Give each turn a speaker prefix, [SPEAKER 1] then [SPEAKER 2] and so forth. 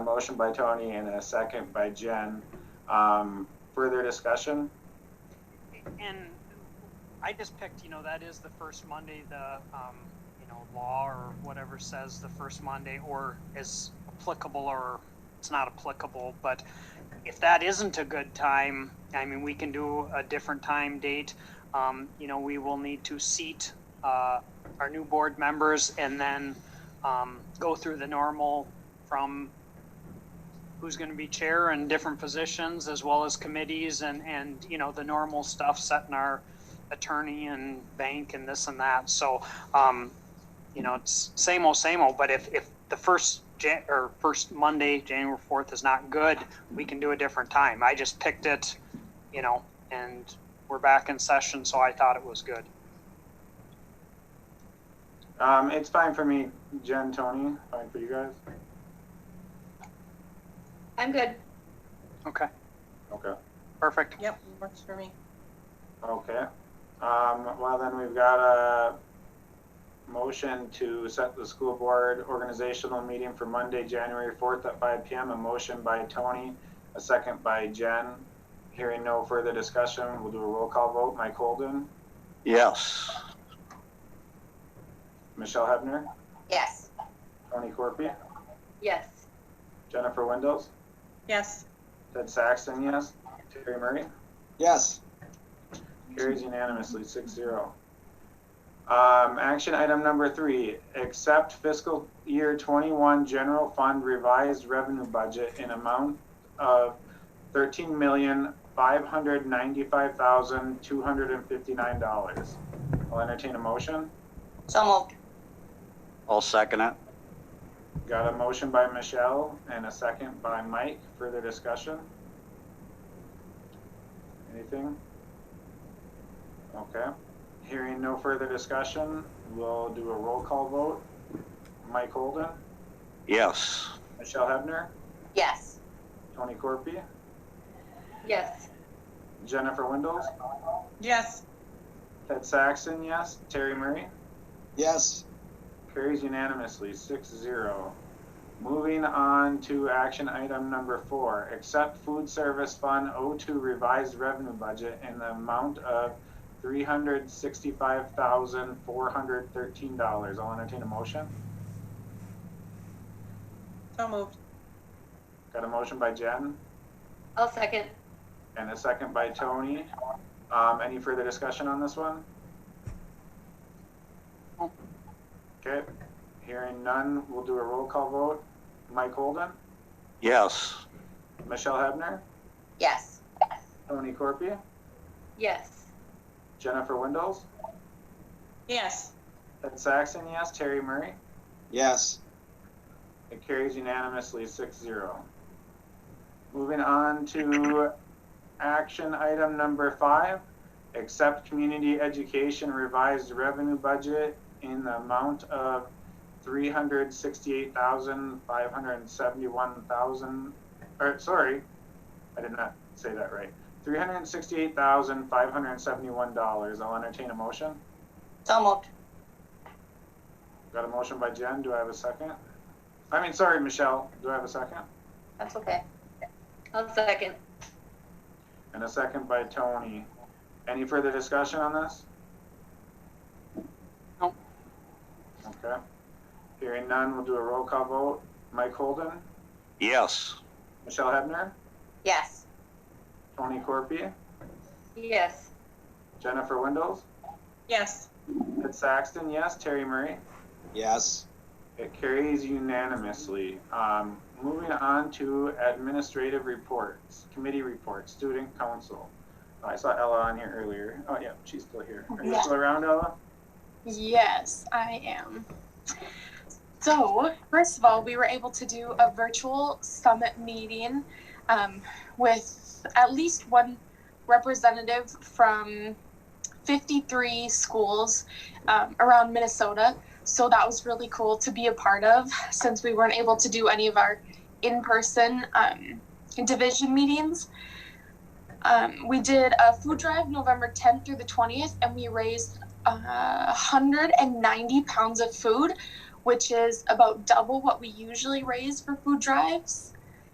[SPEAKER 1] motion by Tony and a second by Jen. Um, further discussion?
[SPEAKER 2] And I just picked, you know, that is the first Monday, the, um, you know, law or whatever says the first Monday or is applicable or it's not applicable, but if that isn't a good time, I mean, we can do a different time date. Um, you know, we will need to seat, uh, our new board members and then, um, go through the normal from who's going to be chair and different positions as well as committees and, and, you know, the normal stuff, setting our attorney and bank and this and that. So, um, you know, it's same old, same old, but if, if the first Jan, or first Monday, January fourth is not good, we can do a different time. I just picked it, you know, and we're back in session, so I thought it was good.
[SPEAKER 1] Um, it's fine for me, Jen, Tony, fine for you guys?
[SPEAKER 3] I'm good.
[SPEAKER 2] Okay,
[SPEAKER 1] Okay,
[SPEAKER 2] perfect.
[SPEAKER 4] Yep, works for me.
[SPEAKER 1] okay. Um, well, then we've got a motion to set the school board organizational meeting for Monday, January fourth at five PM. A motion by Tony, a second by Jen. Hearing no further discussion, we'll do a roll call vote. Mike Holden,
[SPEAKER 5] Yes.
[SPEAKER 1] Michelle Hebner,
[SPEAKER 3] Yes.
[SPEAKER 1] Tony Corpy,
[SPEAKER 3] Yes.
[SPEAKER 1] Jennifer Windows.
[SPEAKER 4] Yes,
[SPEAKER 1] Ted Saxton, yes. Terry Murray?
[SPEAKER 5] Yes.
[SPEAKER 1] Carries unanimously, six zero. Um, action item number three, accept fiscal year twenty-one general fund revised revenue budget in amount of thirteen million, five hundred ninety-five thousand, two hundred and fifty-nine dollars. I'll entertain a motion.
[SPEAKER 3] So moved.
[SPEAKER 5] I'll second it.
[SPEAKER 1] Got a motion by Michelle and a second by Mike. Further discussion? Anything? Okay. Hearing no further discussion, we'll do a roll call vote. Mike Holden,
[SPEAKER 5] Yes.
[SPEAKER 1] Michelle Hebner,
[SPEAKER 3] Yes.
[SPEAKER 1] Tony Corpy,
[SPEAKER 3] Yes.
[SPEAKER 1] Jennifer Windows,
[SPEAKER 4] yes,
[SPEAKER 1] Ted Saxon, yes. Terry Murray?
[SPEAKER 5] Yes.
[SPEAKER 1] Carries unanimously, six zero. Moving on to action item number four, accept food service fund O two revised revenue budget in the amount of three hundred sixty-five thousand, four hundred thirteen dollars. I'll entertain a motion.
[SPEAKER 4] so moved.
[SPEAKER 1] Got a motion by Jen
[SPEAKER 3] I'll second.
[SPEAKER 1] and a second by Tony. Um, any further discussion on this one? Okay, hearing none, we'll do a roll call vote. Mike Holden,
[SPEAKER 5] Yes.
[SPEAKER 1] Michelle Hebner,
[SPEAKER 3] Yes.
[SPEAKER 1] Tony Corpia,
[SPEAKER 3] Yes.
[SPEAKER 1] Jennifer Windows,
[SPEAKER 4] Yes,
[SPEAKER 1] Ted Saxon, yes, Terry Murray.
[SPEAKER 5] Yes.
[SPEAKER 1] It carries unanimously 6-0. Moving on to action item number five, accept community education revised revenue budget in the amount of three hundred sixty-eight thousand, five hundred and seventy-one thousand, or, sorry, I did not say that right. Three hundred and sixty-eight thousand, five hundred and seventy-one dollars. I'll entertain a motion.
[SPEAKER 3] So moved.
[SPEAKER 1] Got a motion by Jen, do I have a second? I mean, sorry, Michelle, do I have a second?
[SPEAKER 3] That's okay. I'll second.
[SPEAKER 1] And a second by Tony. Any further discussion on this?
[SPEAKER 2] Nope.
[SPEAKER 1] Okay. Hearing none, we'll do a roll call vote. Mike Holden,
[SPEAKER 5] Yes.
[SPEAKER 1] Michelle Hebner,
[SPEAKER 3] Yes.
[SPEAKER 1] Tony Corpia,
[SPEAKER 3] Yes.
[SPEAKER 1] Jennifer Windows,
[SPEAKER 4] yes,
[SPEAKER 1] Ed Saxton, yes, Terry Murray.
[SPEAKER 5] Yes.
[SPEAKER 1] It carries unanimously. Um, moving on to administrative reports, committee reports, student council. I saw Ella on here earlier. Oh, yeah, she's still here. Are you
[SPEAKER 6] Yeah.
[SPEAKER 1] still around, Ella?
[SPEAKER 6] Yes, I am. So, first of all, we were able to do a virtual summit meeting um, with at least one representative from 53 schools um, around Minnesota. So, that was really cool to be a part of since we weren't able to do any of our in person um, division meetings. Um, we did a food drive November 10th through the 20th, and we raised uh, 190 pounds of food, which is about double what we usually raise for food drives.